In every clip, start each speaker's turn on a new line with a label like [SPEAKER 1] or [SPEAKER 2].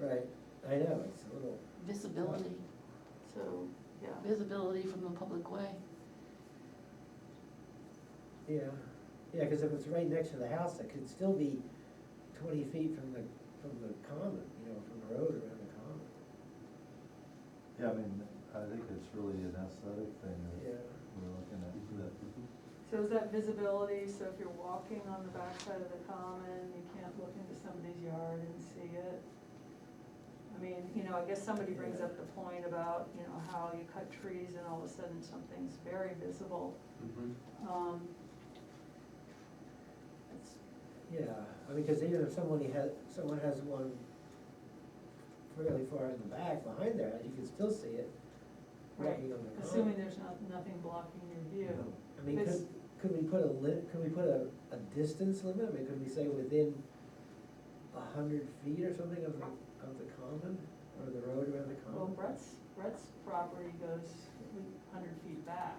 [SPEAKER 1] Right, I know, it's a little,
[SPEAKER 2] visibility,
[SPEAKER 3] so, yeah.
[SPEAKER 2] visibility from the public way.
[SPEAKER 1] yeah, yeah, cause if it's right next to the house, it could still be twenty feet from the, from the common, you know, from the road around the common,
[SPEAKER 4] Yeah, I mean, I think it's really an aesthetic thing
[SPEAKER 1] yeah.
[SPEAKER 4] that we're looking at, that,
[SPEAKER 3] So is that visibility, so if you're walking on the backside of the common, you can't look into somebody's yard and see it? I mean, you know, I guess somebody brings up the point about, you know, how you cut trees and all of a sudden something's very visible. Um, it's-
[SPEAKER 1] Yeah, I mean, cause even if someone has, someone has one fairly far in the back behind their house, you can still see it
[SPEAKER 3] Right,
[SPEAKER 1] walking on the common.
[SPEAKER 3] Assuming there's not, nothing blocking your view.
[SPEAKER 4] Mm-hmm.
[SPEAKER 1] I mean,
[SPEAKER 3] It's-
[SPEAKER 1] could, could we put a lit, could we put a, a distance limit, I mean, could we say within a hundred feet or something of the, of the common, or the road around the
[SPEAKER 3] Well,
[SPEAKER 1] common?
[SPEAKER 3] Brett's, Brett's property goes a hundred feet back,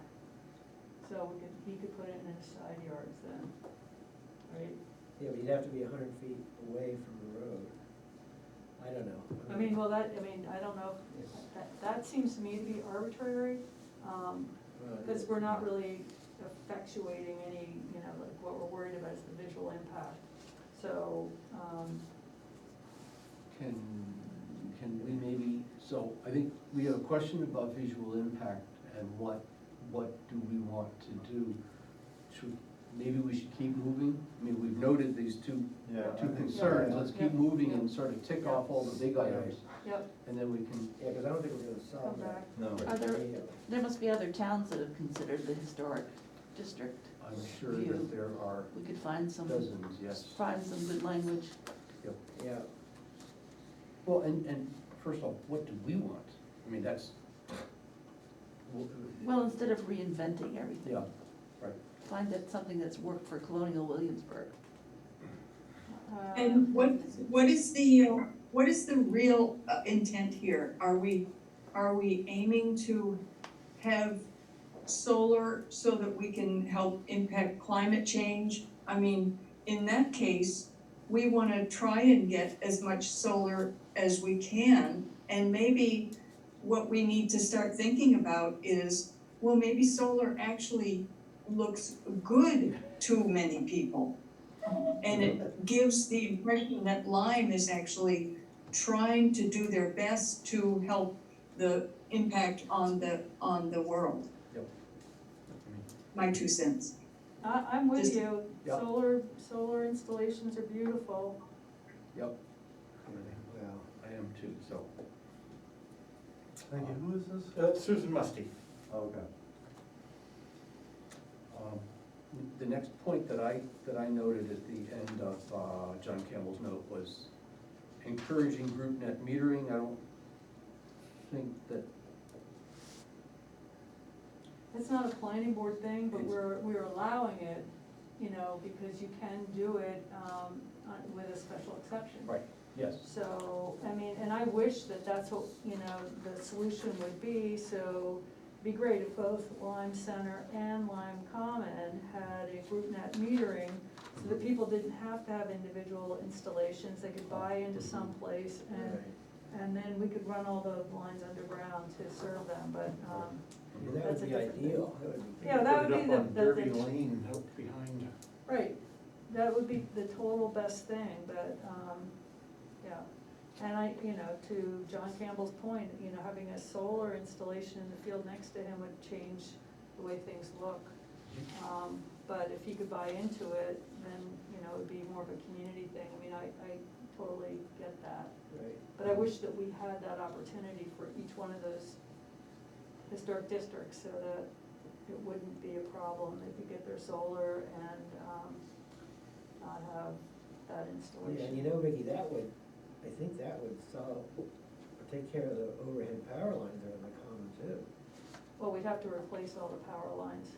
[SPEAKER 3] so we could, he could put it in his side yards then, right?
[SPEAKER 1] Yeah, but you'd have to be a hundred feet away from the road, I don't know.
[SPEAKER 3] I mean, well, that, I mean, I don't know,
[SPEAKER 1] Yes.
[SPEAKER 3] that, that seems to me to be arbitrary, um,
[SPEAKER 1] Well, it
[SPEAKER 3] because
[SPEAKER 1] is.
[SPEAKER 3] we're not really effectuating any, you know, like, what we're worried about is the visual impact. So, um,
[SPEAKER 5] Can, can we maybe, so I think we have a question about visual impact and what, what do we want to do? Should, maybe we should keep moving? I mean, we've noted these two,
[SPEAKER 4] yeah. I
[SPEAKER 5] two
[SPEAKER 4] think-
[SPEAKER 5] concerns,
[SPEAKER 1] yeah.
[SPEAKER 5] let's keep moving and sort of tick off all the big items,
[SPEAKER 3] yep,
[SPEAKER 5] and then we can,
[SPEAKER 1] Yeah, cause I don't think we're gonna solve
[SPEAKER 3] come back.
[SPEAKER 1] that.
[SPEAKER 4] No,
[SPEAKER 2] Are there,
[SPEAKER 1] immediately.
[SPEAKER 2] there must be other towns that have considered the historic district.
[SPEAKER 5] I'm sure that there are
[SPEAKER 2] We could find
[SPEAKER 1] Um,
[SPEAKER 2] some,
[SPEAKER 5] dozens, yes.
[SPEAKER 2] find some good language.
[SPEAKER 1] Yeah,
[SPEAKER 5] Well, and, and first of all, what do we want? I mean, that's.
[SPEAKER 2] Well, instead of reinventing everything,
[SPEAKER 5] Yeah, right.
[SPEAKER 2] find that something that's worked for colonial Williamsburg.
[SPEAKER 3] Um,
[SPEAKER 6] And what, what is the, uh, what is the real uh, intent here? Are we, are we aiming to have solar so that we can help impact climate change? I mean, in that case, we wanna try and get as much solar as we can. And maybe what we need to start thinking about is, well, maybe solar actually looks good to many people. And it gives the impression that Lyme is actually trying to do their best to help the impact on the, on the world.
[SPEAKER 5] Yep.
[SPEAKER 6] My two cents.
[SPEAKER 3] Uh, I, I'm with
[SPEAKER 6] Just-
[SPEAKER 3] you,
[SPEAKER 5] Yep.
[SPEAKER 3] solar, solar installations are beautiful,
[SPEAKER 1] well,
[SPEAKER 5] I am too, so.
[SPEAKER 4] Thank you, who is this?
[SPEAKER 7] Uh, Susan Musty.
[SPEAKER 4] oh, Okay.
[SPEAKER 5] Um, The next point that I, that I noted at the end of uh, John Campbell's note was encouraging group net metering, I don't think that,
[SPEAKER 3] it's not a planning board thing, but
[SPEAKER 5] It's-
[SPEAKER 3] we're, we're allowing it, you know, because you can do it, um, on- with a special exception.
[SPEAKER 5] right, yes,
[SPEAKER 3] So, I mean, and I wish that that's what, you know, the solution would be, so it'd be great if both Lime Center and Lime Common had a group net metering, so that people didn't have to have individual installations, they could buy into some place, and,
[SPEAKER 1] right.
[SPEAKER 3] and then we could run all the lines underground to serve them, but, um,
[SPEAKER 1] I mean, that
[SPEAKER 3] That's
[SPEAKER 1] would be
[SPEAKER 3] a different thing.
[SPEAKER 1] ideal, that would be.
[SPEAKER 3] Yeah,
[SPEAKER 1] great.
[SPEAKER 3] that would
[SPEAKER 7] Put it
[SPEAKER 3] be
[SPEAKER 7] up
[SPEAKER 3] the-
[SPEAKER 7] on
[SPEAKER 3] the-
[SPEAKER 7] Derby
[SPEAKER 3] the-
[SPEAKER 7] Lane, out behind.
[SPEAKER 3] right, that would be the total best thing, but, um, yeah. And I, you know, to John Campbell's point, you know, having a solar installation in the field next to him would change the way things look. Um, but if he could buy into it, then, you know, it would be more of a community thing, I mean, I, I totally get that.
[SPEAKER 1] Right.
[SPEAKER 3] But I wish that we had that opportunity for each one of those historic districts so that it wouldn't be a problem. They could get their solar and, um, not have that
[SPEAKER 1] Oh, Yeah, and you
[SPEAKER 3] installation.
[SPEAKER 1] know, Vicky, that would, I think that would solve, or take care of the overhead power lines that are in the common too.
[SPEAKER 3] Well, we'd have to replace all the power lines.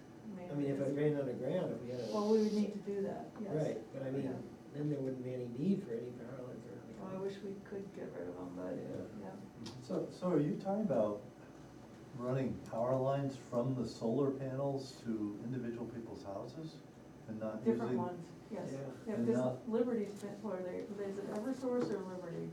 [SPEAKER 1] I mean, if it ran underground, if we had a.
[SPEAKER 3] Well, we would need to do that, yes. Oh,
[SPEAKER 1] Right, but I mean,
[SPEAKER 3] Yeah.
[SPEAKER 1] then there wouldn't be any need for any power lines around the
[SPEAKER 3] Well, I
[SPEAKER 1] common.
[SPEAKER 3] wish we could get rid of them, but,
[SPEAKER 1] Yeah.
[SPEAKER 3] yeah.
[SPEAKER 4] So, so are you talking about running power lines from the solar panels to individual people's houses? And not using?
[SPEAKER 3] Different ones, yes.
[SPEAKER 1] Yeah.
[SPEAKER 3] Yeah,
[SPEAKER 4] And
[SPEAKER 3] because
[SPEAKER 4] not-
[SPEAKER 3] Liberty's been, or they, is it Eversource or Liberty?